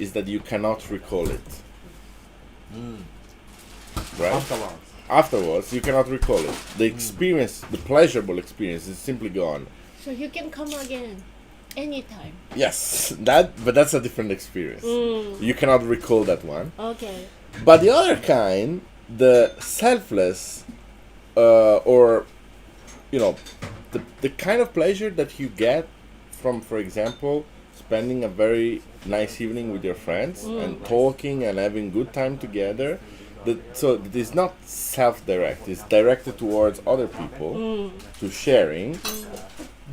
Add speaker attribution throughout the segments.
Speaker 1: is that you cannot recall it. Right?
Speaker 2: afterwards.
Speaker 1: Afterwards, you cannot recall it. The experience, the pleasurable experience, is simply gone.
Speaker 3: So you can come again anytime.
Speaker 1: Yes, that. But that's a different experience.
Speaker 3: Mm.
Speaker 1: You cannot recall that one.
Speaker 3: Okay.
Speaker 1: But the other kind, the selfless, uh, or you know, the the kind of pleasure that you get from, for example, spending a very nice evening with your friends and talking and having good time together. That, so it is not self-direct; it's directed towards other people to sharing.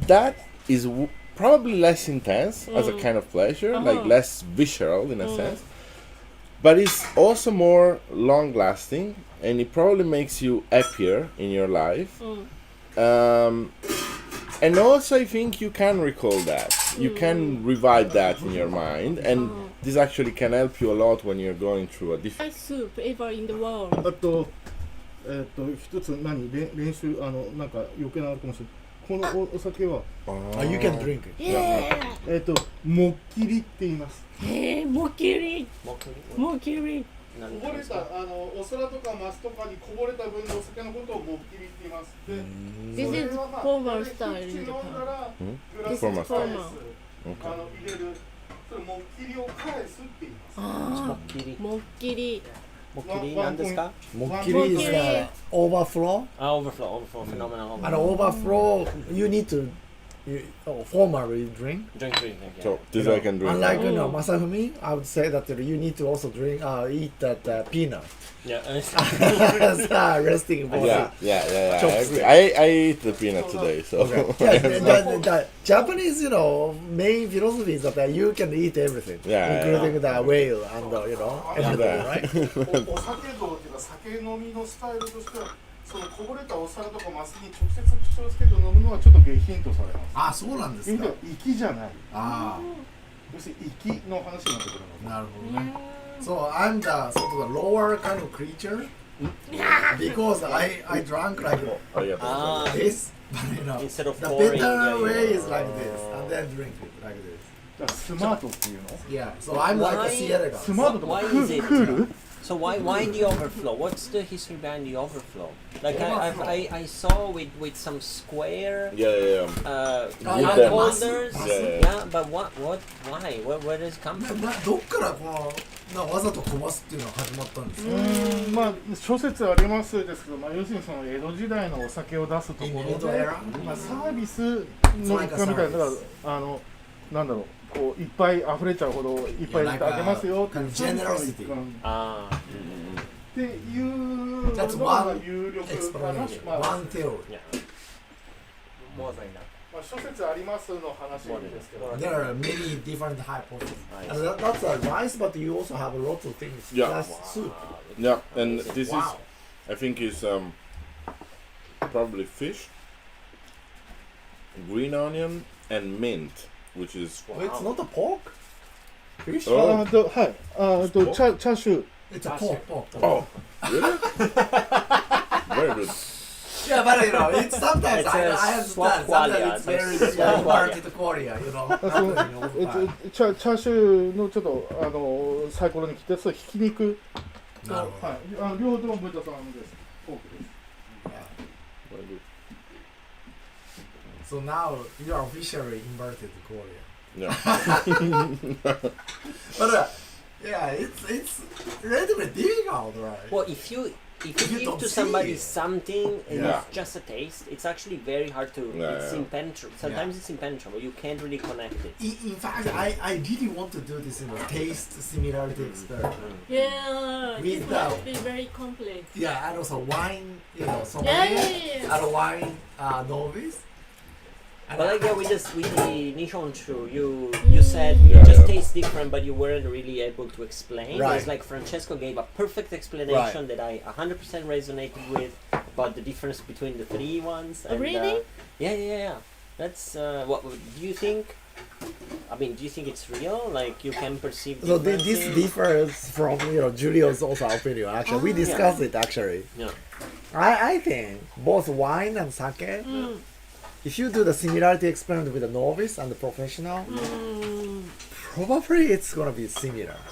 Speaker 1: That is w- probably less intense as a kind of pleasure, like
Speaker 3: Uh-huh.
Speaker 1: less visceral in a sense but it's also more long lasting and it probably makes you happier in your life um, and also i think you can recall that you can revive that in your mind and this actually can help you a lot when you're going through a different
Speaker 3: Best soup ever in the world.
Speaker 2: あと、えっと、一つ何練練習、あの、なんか余計なのあるかもしれない。このおお酒は、
Speaker 4: Uh, you can drink it.
Speaker 3: Yeah.
Speaker 2: えっと、もっきりって言います。
Speaker 3: えー、もきり、
Speaker 5: こ
Speaker 3: もきり。
Speaker 2: こぼれた、あの、お皿とかマスとかにこぼれた分のお酒のことをもっきりって言います。で、
Speaker 3: This is formal style
Speaker 1: ん
Speaker 3: in Japan.
Speaker 2: グ
Speaker 1: ラスに Formal
Speaker 2: 返
Speaker 3: style
Speaker 2: すあの、入れる。それ、もっきりを返すって言います。
Speaker 3: あ
Speaker 5: っきり
Speaker 3: あ、もっきり。
Speaker 5: もっきりなんですか
Speaker 4: Mokiri is the Ah, overflow.
Speaker 5: あ、オーバーフロー、オーバーフロー、フェノメナオーバ
Speaker 4: And
Speaker 5: ーフロ
Speaker 4: overflow, you need to you, oh, formally
Speaker 5: ー。
Speaker 4: drink.
Speaker 5: ドリンクドリンク。
Speaker 1: so
Speaker 4: You
Speaker 1: this
Speaker 4: know,
Speaker 1: i can drink
Speaker 4: Unlike you know,
Speaker 3: Mm.
Speaker 4: Masafumi, I would say that you need to also drink, uh, eat that uh, peanut.
Speaker 5: いや、
Speaker 4: As, uh, resting body.
Speaker 1: yeah yeah yeah, yeah I,
Speaker 4: Chopstick.
Speaker 1: agree. I I ate the peanut today so
Speaker 4: Yeah, the, the, the Japanese, you know, main philosophy is that uh, you can eat everything,
Speaker 1: Yeah, yeah,
Speaker 4: including the whale and uh, you know, everything, right?
Speaker 2: おお酒道っていうか酒飲みのスタイルとしてはそのこぼれたお皿とかマスに直接口をつけて飲むのはちょっと下品とされます
Speaker 4: あ、Ah, そうなんで
Speaker 2: 意味は粋じゃない
Speaker 4: あ
Speaker 2: 要するに粋の話になってくるの
Speaker 4: あ、なるほどね。So I'm the sort of the lower kind of creature because I I drank like
Speaker 1: Oh, yeah.
Speaker 5: ああ、
Speaker 4: this, but you know, the
Speaker 5: instead of pouring.
Speaker 4: better way is like this, and then drink it like this.
Speaker 2: だからスマートっていうの
Speaker 4: Yeah. So I'm like
Speaker 5: Why-
Speaker 4: a theater guy.
Speaker 2: スマートとかク
Speaker 5: Why is
Speaker 2: ー
Speaker 5: it?
Speaker 2: ルクー ル
Speaker 5: So why why the overflow? What's the history behind the overflow? Like I I, I, I saw with, with some square
Speaker 1: yeah yeah yeah
Speaker 5: uh,
Speaker 4: Oh,
Speaker 5: cup
Speaker 1: yeah.
Speaker 5: holders.
Speaker 4: Yeah,
Speaker 1: yeah, yeah.
Speaker 5: but what what why? Where where does it come
Speaker 4: な
Speaker 5: from?
Speaker 4: などっからこのなわざとこぼすっていうのが始まったんですか。
Speaker 2: うんまあ諸説ありますですけど、まあ、要するにその江戸時代のお酒を出すところで、まあ、サービスの一環みたいなだからあのなんだろうこういっぱい溢れちゃうほどいっぱいあげますよっていう
Speaker 4: Generosity.
Speaker 5: Ah,
Speaker 2: っていうの
Speaker 4: That's
Speaker 2: が
Speaker 4: one
Speaker 2: 有力かな、ま
Speaker 4: Explanation.
Speaker 2: あ、
Speaker 4: One
Speaker 5: yeah.
Speaker 4: theory.
Speaker 5: More than that.
Speaker 2: まあ諸説ありますの話ですけど、
Speaker 4: There are many different hypotheses.
Speaker 5: I
Speaker 4: And that, that's uh, nice, but you also have a lot of things.
Speaker 1: Yeah.
Speaker 4: That's soup.
Speaker 1: yeah and this is
Speaker 4: Wow.
Speaker 1: I think it's um, probably fish, green onion, and mint, which is
Speaker 4: Oh, It's not a pork. Fish.
Speaker 1: あ
Speaker 2: あとはいあとチャチャーシュー
Speaker 4: It's a pork. pork, pork.
Speaker 1: oh, really? Very good.
Speaker 4: Yeah, but you know, it's sometimes
Speaker 5: It's
Speaker 4: I,
Speaker 5: a
Speaker 4: I understand.
Speaker 5: swaqualia,
Speaker 4: Sometimes
Speaker 5: it's
Speaker 4: it's very
Speaker 5: a swaqualia.
Speaker 4: market Korea, you know.
Speaker 2: あその えっとチャチャーシューのちょっとあのサイコロに切ったそれひき肉と、
Speaker 4: な
Speaker 2: は
Speaker 4: る
Speaker 2: い
Speaker 4: ほど、
Speaker 2: あの両方とも豚さんです。フォークです
Speaker 1: Very good.
Speaker 4: so now you are officially inverted Korea.
Speaker 1: Yeah.
Speaker 4: But uh, yeah, it's it's relatively difficult, right?
Speaker 5: Well, if you if
Speaker 4: You
Speaker 5: you give
Speaker 4: don't
Speaker 5: to
Speaker 4: see
Speaker 5: somebody
Speaker 4: it.
Speaker 5: something and
Speaker 1: Yeah.
Speaker 5: it's just a taste, it's actually very hard to.
Speaker 1: Yeah,
Speaker 5: it's
Speaker 1: yeah.
Speaker 5: impenetrable. Sometimes it's impenetrable. You can't really connect it.
Speaker 4: In, in fact, I, I really want to do this in a taste similarity experiment.
Speaker 3: Yeah.
Speaker 4: We
Speaker 3: This
Speaker 4: know.
Speaker 3: must be very complex.
Speaker 4: Yeah, and also wine, you know, sommelier,
Speaker 3: Yeah, yeah, yeah.
Speaker 4: and a wine uh, novice. And
Speaker 5: But
Speaker 4: I- Mm.
Speaker 5: like yeah, with this with the Nihon Shu, you you said
Speaker 1: Yeah,
Speaker 5: it just
Speaker 1: yeah.
Speaker 5: tastes different, but you weren't really able to explain.
Speaker 4: Right.
Speaker 5: It's like Francesco gave a perfect explanation that I 100% resonated with about the difference between the three ones.
Speaker 3: Oh,
Speaker 5: And,
Speaker 3: really?
Speaker 5: Uh, yeah, yeah, yeah. That's uh, what do you think? I mean, do you think it's real? Like you can perceive.
Speaker 4: So thi- this
Speaker 5: differences?
Speaker 4: differs from you know Julio's also opinion. Actually, we discussed it actually.
Speaker 5: Ah, Yeah.
Speaker 4: I, I think both wine and sake.
Speaker 5: Mm. Mm.
Speaker 4: If you do the similarity experiment with a novice and the professional, probably it's gonna be similar.